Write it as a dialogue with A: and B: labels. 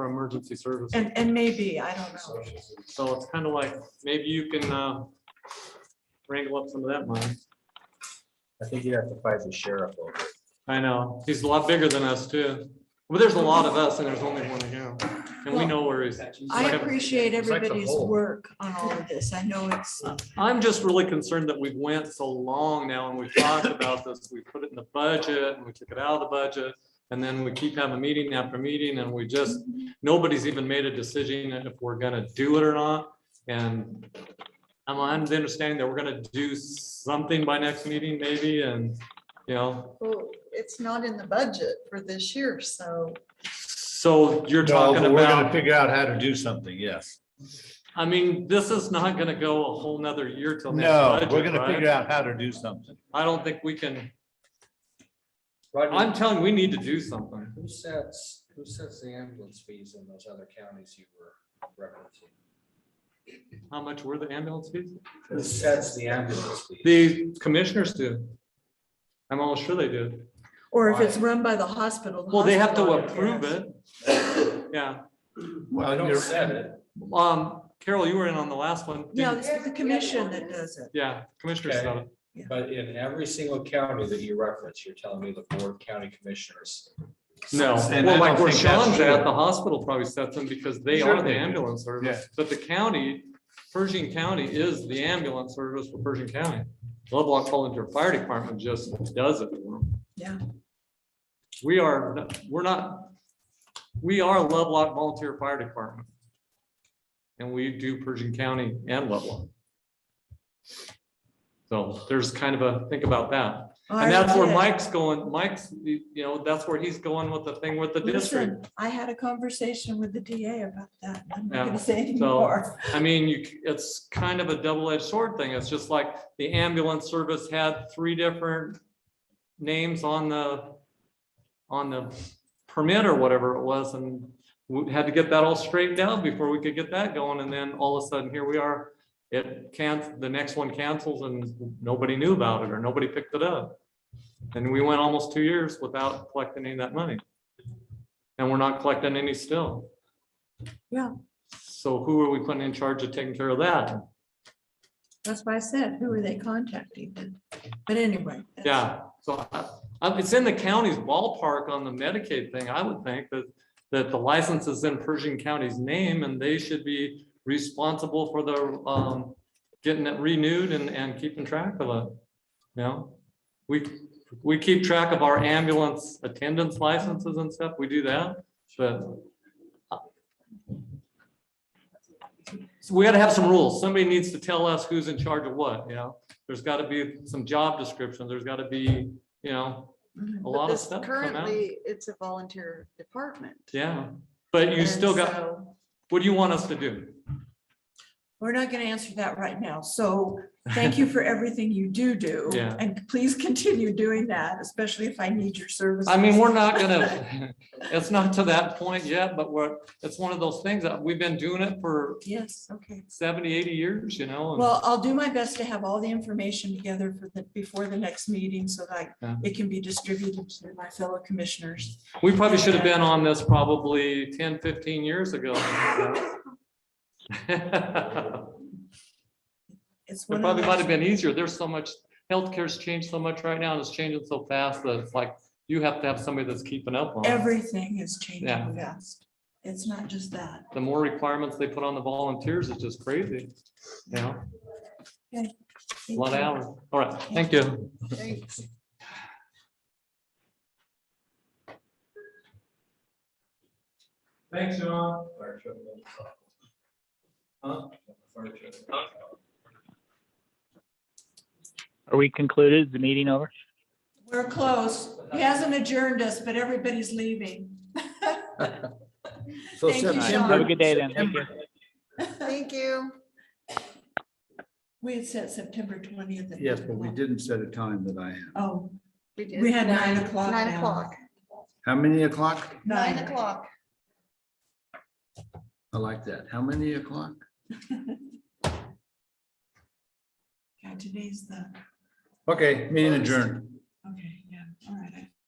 A: for emergency services.
B: And, and maybe, I don't know.
A: So it's kind of like, maybe you can uh, wrangle up some of that money.
C: I think you have to fight the sheriff over. it.
A: I know, he's a lot bigger than us too. Well, there's a lot of us and there's only one of him. And we know where he's.
B: I
A: Like,
B: appreciate
C: It's like the
B: everybody's
C: whole-
B: work on all of this. I know it's,
A: I'm just really concerned that we've went so long now and we've talked about this. We put it in the budget and we took it out of the budget. And then we keep having meeting after meeting and we just, nobody's even made a decision if we're gonna do it or not. And I'm on the understanding that we're gonna do something by next meeting maybe and, you know,
B: well, it's not in the budget for this year, so.
A: so you're
C: No,
A: talking
C: but We're gonna
A: about,
C: figure out how to do something, yes.
A: I mean, this is not gonna go a whole nother year till next
C: No,
A: budget,
C: we're gonna
A: right?
C: figure out how to do something.
A: I don't think we can, I'm
D: Roger,
A: telling, you, we need to do something.
D: who sets, who sets the ambulance fees in those other counties you were referencing?
A: How much were the ambulance fees?
D: Who sets the ambulance fees?
A: The commissioners do. I'm almost sure they do.
B: Or if it's run by the hospital. the
A: Well, they have to
B: hospital
A: approve
B: has-
A: it. Yeah,
D: They
C: Well,
D: don't set it.
A: um, Carol, you were in on the last one. didn't
B: Yeah,
A: you?
B: this is the commission that does it.
A: Yeah, commissioners.
D: Okay.
A: got it.
D: But in every single county that you reference, you're telling me the board of county commissioners.
A: No,
C: And I
A: well, like
C: don't
A: where
C: think that's
A: Sean's at,
C: true.
A: the hospital probably sets them because they
C: Sure
A: are the
C: they do.
A: ambulance service. But the county, Pershing County is the ambulance service for Pershing County. Lovelock Volunteer Fire Department just does it. for 'em.
B: Yeah.
A: We are, we're not, we are Lovelock Volunteer Fire Department. And we do Pershing County and Lovelock. So there's kind of a, think about that. And that's where
B: RFK.
A: Mike's going, Mike's, you know, that's where he's going with the thing with the district.
B: Listen, I had a conversation with the DA about that. I'm
A: Yeah,
B: not gonna say
A: so-
B: anymore.
A: I mean, you, c- it's kind of a double-edged sword thing. It's just like the ambulance service had three different names on the, on the permit or whatever it was, and we had to get that all straightened out before we could get that going, and then all of a sudden, here we are. It can't, the next one cancels and nobody knew about it, or nobody picked it up. And we went almost two years without collecting any of that money. And we're not collecting any still. So who are we putting in charge of taking care of that?
B: That's why I said, who are they contacting then? But anyway. that's-
A: Yeah, so I- I- it's in the county's ballpark on the Medicaid thing, I would think that, that the license is in Pershing County's name and they should be responsible for the, um, getting it renewed and, and keeping track of it. You know, we, we keep track of our ambulance attendance licenses and stuff, we do that, but So we gotta have some rules. Somebody needs to tell us who's in charge of what, you know? There's gotta be some job description. There's gotta be, you know,
B: Mhm.
A: a
E: Mm-hmm. But
A: lot of
E: this-
A: stuff come out.
E: Currently, it's a volunteer department.
A: Yeah, but you
E: And
A: still got,
E: so
A: what do you want us to do?
B: We're not gonna answer that right now. So thank you for everything you do do.
A: Yeah.
B: And please continue doing that, especially if I need your services.
A: I mean, we're not gonna, it's not to that point yet, but we're, it's one of those things that we've been doing it for
B: Yes, okay.
A: 70, 80 years, you know? and-
B: Well, I'll do my best to have all the information together for the, before the next meeting so that
A: Yeah.
B: it can be distributed to my fellow commissioners.
A: We probably should have been on this probably 10, 15 years ago.
B: It's
A: It
B: one
A: probably
B: of
A: might have
B: those,
A: been easier. There's so much, healthcare's changed so much right now and it's changing so fast that it's like, you have to have somebody that's keeping up on it.
B: everything is
A: Yeah.
B: changing fast. It's not just that.
A: The more requirements they put on the volunteers, it's just crazy. You know, a lot of hours. All right, thank you.
E: thanks.
A: Thanks, John.
F: Are we concluded? Is the meeting over?
B: We're close. He hasn't adjourned us, but everybody's leaving.
C: So
B: Thank you,
C: September-
B: Sean.
F: Have a good day then. Thank you.
C: September-
E: Thank you.
B: We had set September twentieth.
C: Yes, but we didn't set a time that I have.
B: Oh,
E: did
B: We had nine o'clock
E: Nine
B: now.
E: o'clock,
C: How many o'clock?
E: nine
B: nine.
E: o'clock.
C: I like that. How many o'clock?
B: Yeah, today's the,
C: Okay, meeting adjourned.
B: okay, yeah, all right. I